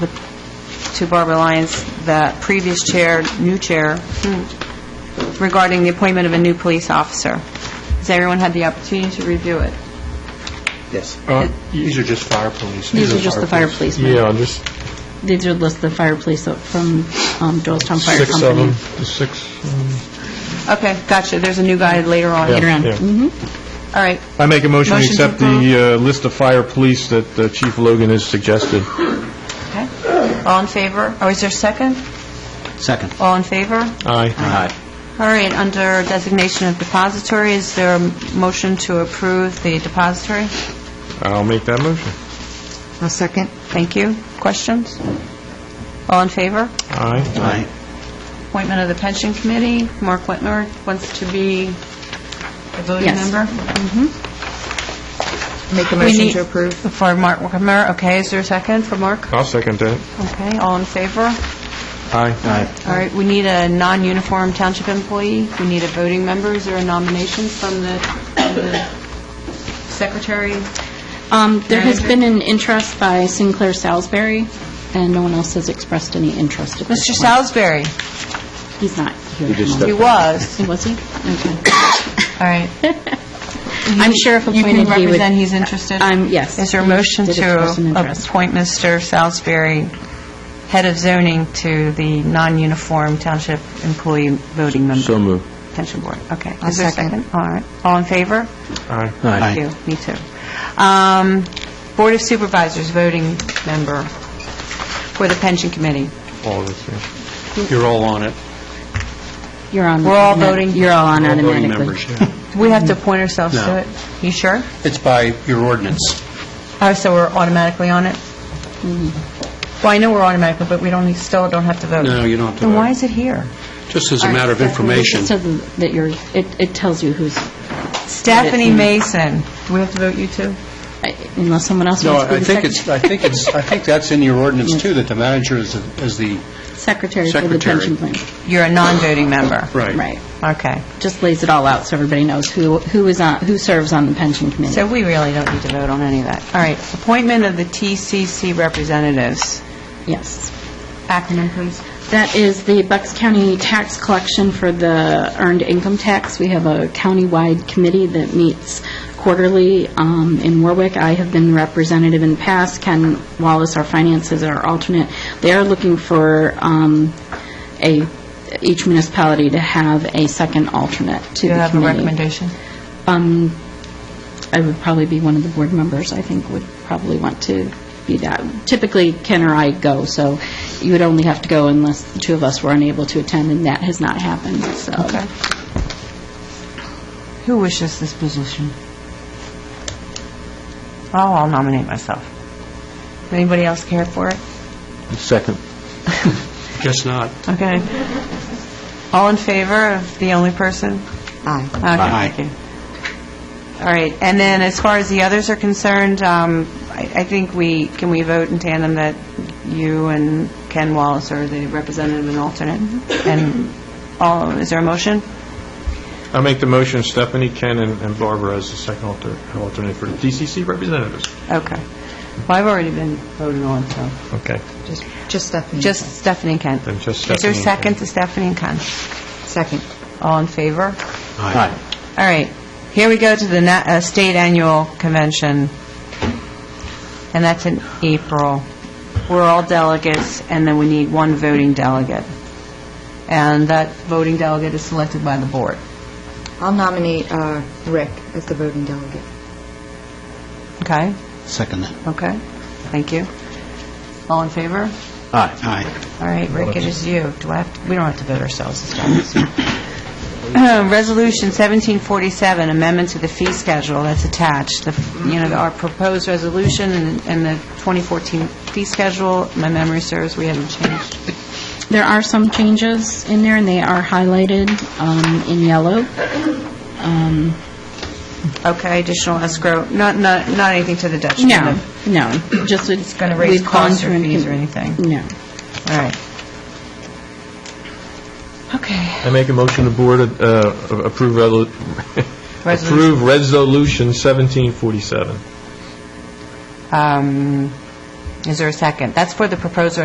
to Barbara Lyons, the previous chair, new chair, regarding the appointment of a new police officer. Has everyone had the opportunity to review it? Yes. Uh, These are just fire police. These are just the fire policemen. Yeah, just These are lists of fire police from um, Doylestown Fire six of them, Company. the six. um, Okay, gotcha, there's a new guy later on. yeah, Later on. Mm-hmm. yeah. All right, I make a motion to Motion to accept the uh, list of fire police that uh, Chief Logan has suggested. okay. All in favor? Or is there a second? Second. All in favor? Aye. Aye. All right, under designation of depository, is there a motion to approve the depository? I'll make that motion. A second. Thank you. Questions? All in favor? Aye. Aye. Appointment of the pension committee, Mark Whitmer wants to be a voting Yes. member? Make a We motion need- to approve. For Mark Whitmer, okay, is there a second for Mark? I'll second that. Okay, all in favor? Aye. Aye. All right, we need a non-uniform township employee, we need a voting member, is there a nomination from the from the secretary? Um, There has Manager? been an interest by Sinclair Salisbury, and no one else has expressed any interest at this Mr. point. Salisbury, He's not here. He just at the he moment. was, He Was he? Okay. all right. I'm sure if You can appointed, he would... represent, he's interested? I'm- Yes. Is there a motion Did express an to interest. appoint Mr. Salisbury, head of zoning, to the non-uniform township employee voting member? So moved. Pension board, okay. I'll Is there a second. All right. All in favor? Aye. Thank you. Me too. Um, Board of Supervisors voting member for the pension committee. All of us, yeah. You're all on it. You're on... We're all voting- You're all on All automatically. voting members, yeah. Do we Mm. have to appoint ourselves No. to it? You sure? It's by your ordinance. Oh, so we're automatically on it? Well, I know we're automatically, but we don't, still don't have to vote. No, you don't have to Mm-hmm. Then why vote. is it here? Just as a matter of information. So that you're, it it tells you who's, Stephanie Mason. Do we have to vote you too? unless someone else No, wants to I be the think it's, I secretary. think it's, I think that's in your ordinance, too, that the manager is the- is the... Secretary for the Secretary. pension plan. You're a non-voting member. Right. Okay. Just lays it all out so everybody knows who who is on, who serves on the pension committee. So we really don't need to vote on any of that. All right. Appointment of the TCC representatives. Yes. Acronym, please. That is the Bucks County tax collection for the earned income tax. We have a countywide committee that meets quarterly um, in Warwick. I have been representative in the past. Ken Wallace, our finances, our alternate. They are looking for um, a, each municipality to have a second alternate to Do you the have a committee. recommendation? Um, I would probably be one of the board members, I think, would probably want to be that. Typically, Ken or I go, so you would only have to go unless the two of us were unable to attend, and that has not happened, so. Okay. Who wishes this position? Oh, I'll nominate myself. Anybody else care for it? Second. Guess not. Okay. All in favor of the only person? Aye. Okay, thank you. All right, and then as far as the others are concerned, um, I I think we, can we vote in tandem that you and Ken Wallace are the representative and alternate? Mm-hmm. And all, is there a motion? I'll make the motion, Stephanie, Ken, and and Barbara as the second alter- alternate for the DCC representatives. Okay. Well, I've already been voted on, so Okay. Just Stephanie. just Stephanie and Ken. Then just Is there a Stephanie and second Ken. to Stephanie and Ken? Second. All in favor? Aye. All right, here we go to the na- uh, state annual convention, and that's in April. We're all delegates, and then we need one voting delegate. And that voting delegate is selected by the board. I'll nominate uh, Rick as the voting delegate. Okay? Second that. Okay. Thank you. All in favor? Aye. Aye. All right, Rick, it is you. Do I have, to- we don't have to vote ourselves this time. so. Resolution 1747, amendment to the fee schedule that's attached. The You know, our proposed resolution and and the 2014 fee schedule, my memory serves, we haven't changed. There are some changes in there, and they are highlighted um, in yellow. Um, Okay, additional escrow, not, not, not anything to the detriment No, of... no, just it's... gonna raise we've gone costs or through and- fees or anything. No. All right. Okay. I make a motion, the board uh, approve relu- Resolution. approve Resolution 1747. Um, Is there a second? That's for the proposed